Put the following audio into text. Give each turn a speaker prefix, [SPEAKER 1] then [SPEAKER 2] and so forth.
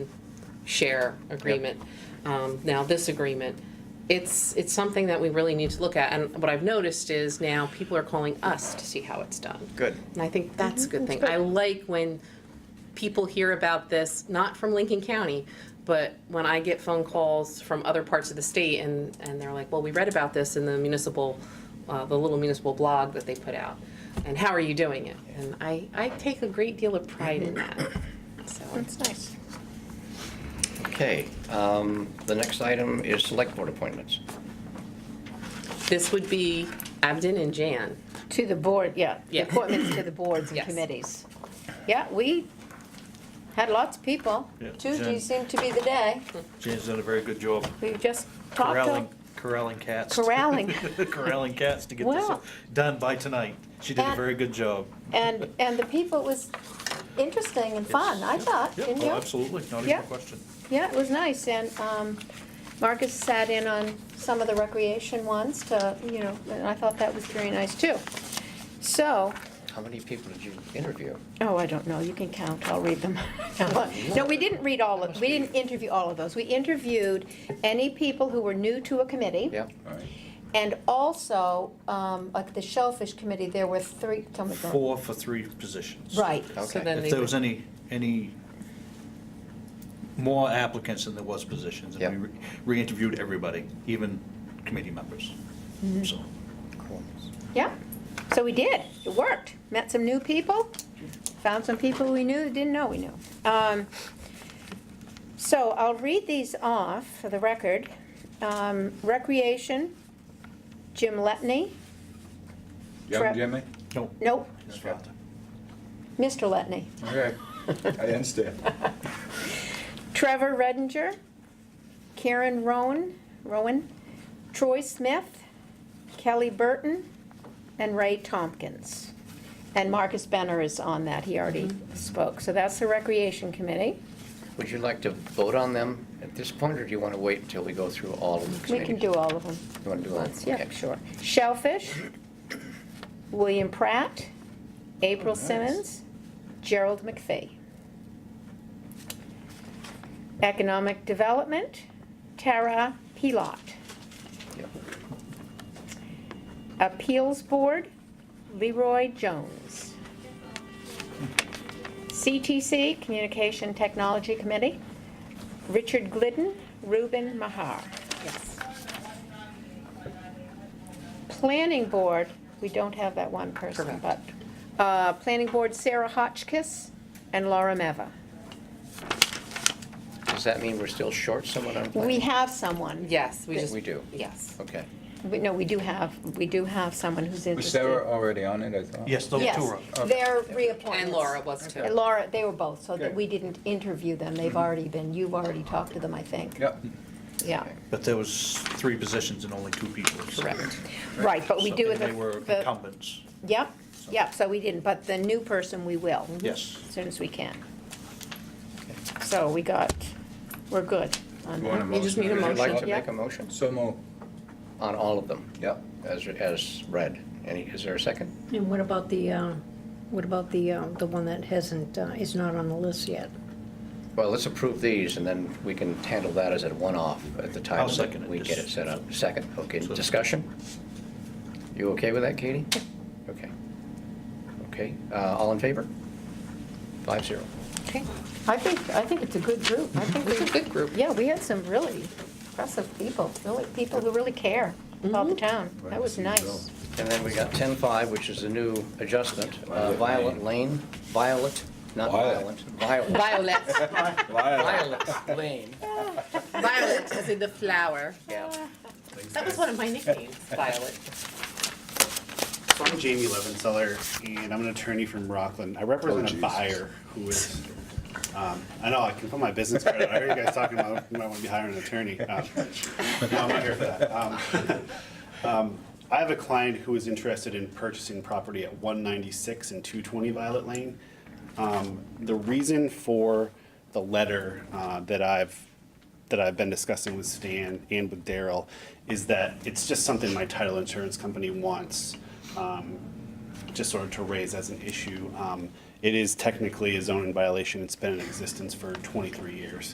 [SPEAKER 1] share agreement. Um, Now, this agreement, it's, it's something that we really need to look at. And what I've noticed is now people are calling us to see how it's done.
[SPEAKER 2] Good.
[SPEAKER 1] And I think Mm-hmm. that's a good thing. I like when people hear about this, not from Lincoln County, but when I get phone calls from other parts of the state and, and they're like, well, we read about this in the municipal, uh, the little municipal blog that they put out. And how are you doing it? And I, I take a great deal of pride in that, so.
[SPEAKER 3] That's nice.
[SPEAKER 2] Okay, um, the next item is select board appointments.
[SPEAKER 1] This would be Abden and Jan.
[SPEAKER 3] To the board, yeah. the
[SPEAKER 1] Yeah.
[SPEAKER 3] Appointments to the boards and
[SPEAKER 1] Yes.
[SPEAKER 3] committees. Yeah, we had lots of people.
[SPEAKER 4] Yeah,
[SPEAKER 3] Tuesday
[SPEAKER 4] Jen.
[SPEAKER 3] seemed to be the day.
[SPEAKER 4] Jane's done a very good job
[SPEAKER 3] We just talked
[SPEAKER 4] corralling,
[SPEAKER 3] to
[SPEAKER 4] corralling cats.
[SPEAKER 3] corralling.
[SPEAKER 4] Corralling cats to get this
[SPEAKER 3] Well-
[SPEAKER 4] done by tonight. She did a
[SPEAKER 3] And-
[SPEAKER 4] very good job.
[SPEAKER 3] And, and the people, it was interesting and fun, I thought,
[SPEAKER 4] Yeah,
[SPEAKER 3] didn't
[SPEAKER 4] oh,
[SPEAKER 3] you?
[SPEAKER 4] absolutely, not even
[SPEAKER 3] Yeah.
[SPEAKER 4] a question.
[SPEAKER 3] Yeah, it was nice, and um, Marcus sat in on some of the recreation ones to, you know, and I thought that was very nice too. So,
[SPEAKER 2] How many people did you interview?
[SPEAKER 3] Oh, I don't know, you can count, I'll read them. No, we didn't read all of, we didn't interview all of those. We interviewed any people who were new to a committee.
[SPEAKER 2] Yeah,
[SPEAKER 3] And also, um, like the Shellfish Committee, there were three, tell me. the-
[SPEAKER 4] Four for three positions.
[SPEAKER 3] Oh Right,
[SPEAKER 1] So
[SPEAKER 2] Okay.
[SPEAKER 1] then
[SPEAKER 4] If
[SPEAKER 1] they
[SPEAKER 4] there
[SPEAKER 1] would-
[SPEAKER 4] was any, any more applicants than there was positions,
[SPEAKER 2] Yeah.
[SPEAKER 4] and we re- re-interviewed everybody, even committee members.
[SPEAKER 3] Mm-hmm.
[SPEAKER 4] So,
[SPEAKER 2] cool.
[SPEAKER 3] yeah. So we did, it worked. Met some new people, found some people we knew, didn't know we knew. Um, So I'll read these off for the record. Um, Recreation, Jim Letney, Trip.
[SPEAKER 5] Young Jimmy?
[SPEAKER 4] no,
[SPEAKER 1] Oh.
[SPEAKER 3] nope,
[SPEAKER 4] his father.
[SPEAKER 3] Mr. Letney.
[SPEAKER 5] Okay. I understand.
[SPEAKER 3] Trevor Redinger, Karen Rowan, Rowan, Troy Smith, Kelly Burton, and Ray Tompkins. And Marcus Benner is on that, he already spoke. So that's the Recreation Committee.
[SPEAKER 2] Would you like to vote on them at this point, or do you want to wait until we go through all of the
[SPEAKER 3] We
[SPEAKER 2] committees?
[SPEAKER 3] can do all of them.
[SPEAKER 2] You want to do all?
[SPEAKER 3] Yeah,
[SPEAKER 2] okay.
[SPEAKER 3] sure. Shellfish, William Pratt, April Simmons, Gerald McPhee. Economic Development, Tara Pilot.
[SPEAKER 2] Yeah.
[SPEAKER 3] Appeals Board, Leroy Jones. CTC, Communication Technology Committee, Richard Glidden, Ruben Mahar.
[SPEAKER 1] Yes.
[SPEAKER 3] Planning Board, we don't have that one person, but, uh, Planning Board, Sarah Hotchkiss and Laura Meva.
[SPEAKER 2] Does that mean we're still short someone on planning?
[SPEAKER 3] We have someone.
[SPEAKER 1] Yes, we just.
[SPEAKER 2] We do.
[SPEAKER 1] Yes.
[SPEAKER 2] Okay.
[SPEAKER 3] We- No, we do have, we do have someone who's
[SPEAKER 5] Was
[SPEAKER 3] interested.
[SPEAKER 5] Sarah already on it, I thought?
[SPEAKER 4] Yes, those
[SPEAKER 3] Yes,
[SPEAKER 4] two are.
[SPEAKER 3] they're reappointments.
[SPEAKER 1] And Laura was too.
[SPEAKER 3] And Laura, they were both, so that
[SPEAKER 5] Good.
[SPEAKER 3] we didn't interview them. They've already been, you've already talked to them, I think.
[SPEAKER 5] Yep.
[SPEAKER 3] Yeah,
[SPEAKER 4] But there was three positions and only two people. so-
[SPEAKER 1] Correct.
[SPEAKER 3] right, but we
[SPEAKER 4] So-
[SPEAKER 3] do
[SPEAKER 4] and
[SPEAKER 3] with the.
[SPEAKER 4] They were
[SPEAKER 3] the-
[SPEAKER 4] incumbents,
[SPEAKER 3] Yep, yep, so we didn't, but the new person, we will.
[SPEAKER 4] Mm-hmm. yes.
[SPEAKER 3] As soon as we can. So we got, we're good on
[SPEAKER 5] Want a
[SPEAKER 3] that.
[SPEAKER 1] You just
[SPEAKER 5] motion?
[SPEAKER 1] need a
[SPEAKER 2] Would you like to
[SPEAKER 1] motion.
[SPEAKER 3] yeah.
[SPEAKER 2] make a motion
[SPEAKER 5] So moved.
[SPEAKER 2] on all of them?
[SPEAKER 5] Yep.
[SPEAKER 2] As, as read. Any, is there a second?
[SPEAKER 6] And what about the, uh, what about the, uh, the one that hasn't, uh, is not on the list yet?
[SPEAKER 2] Well, let's approve these, and then we can handle that as a one-off at the time.
[SPEAKER 4] I'll second it,
[SPEAKER 2] We get it
[SPEAKER 4] just-
[SPEAKER 2] set up. Second, okay.
[SPEAKER 4] So-
[SPEAKER 2] Discussion? You okay with that, Katie? Okay. Okay, uh, all in favor? Five zero.
[SPEAKER 1] Okay.
[SPEAKER 3] I think, I think it's a good group. I think
[SPEAKER 1] It's a
[SPEAKER 3] we,
[SPEAKER 1] good group.
[SPEAKER 3] yeah, we had some really impressive people, really, people who really care about the town. That was nice.
[SPEAKER 2] And then we got ten five, which is the new adjustment. Uh, Violet
[SPEAKER 5] Violet
[SPEAKER 2] Lane, Violet, not violent,
[SPEAKER 5] Violet.
[SPEAKER 2] Violet.
[SPEAKER 1] Violet,
[SPEAKER 2] Violet Lane.
[SPEAKER 1] violet, as in the flower.
[SPEAKER 2] Yeah.
[SPEAKER 1] That was one of my nicknames, Violet.
[SPEAKER 7] So I'm Jamie Levenseller, and I'm an attorney from Rockland. I
[SPEAKER 5] Oh,
[SPEAKER 7] represent a
[SPEAKER 5] Jesus.
[SPEAKER 7] buyer who is, um, I know, I can put my business credit, I heard you guys talking about, you might want to be hiring an attorney. Um, No, I'm not here for that. Um, um, I have a client who is interested in purchasing property at 196 and 220 Violet Lane. Um, The reason for the letter uh, that I've, that I've been discussing with Stan and with Daryl is that it's just something my title insurance company wants just sort of to raise as an issue. Um, It is technically a zoning violation. It's been in existence for 23 years.